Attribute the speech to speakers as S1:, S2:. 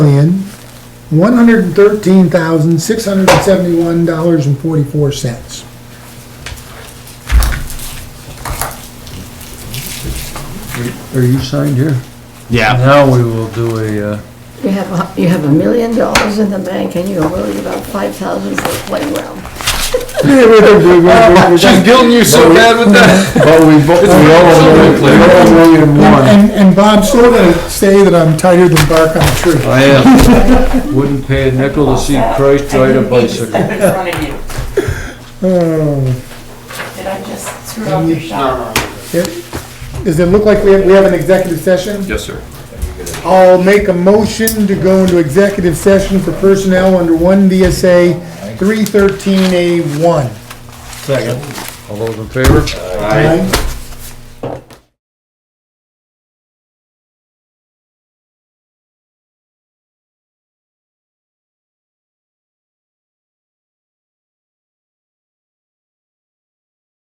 S1: million, one hundred and thirteen thousand, six hundred and seventy-one dollars and forty-four cents.
S2: Are you signed here?
S3: Yeah.
S2: Now we will do a, uh,
S4: You have, a- you have a million dollars in the bank and you're worried about five thousand for a playground.
S3: She's guilting you so bad with that.
S2: but we, bo- we all, we all agree in one.
S1: And, and Bob's still gonna say that I'm tighter than bark on a tree.
S2: I am. Wouldn't pay a nickel to see Christ ride a bicycle.
S5: Step in front of you.
S1: Oh,
S5: Did I just screw up your shot?
S1: it- Does it look like we have, we have an executive session?
S3: Yes, sir.
S1: I'll make a motion to go into executive session for personnel under one VSA three thirteen A one.
S2: All those in favor?
S1: Aye.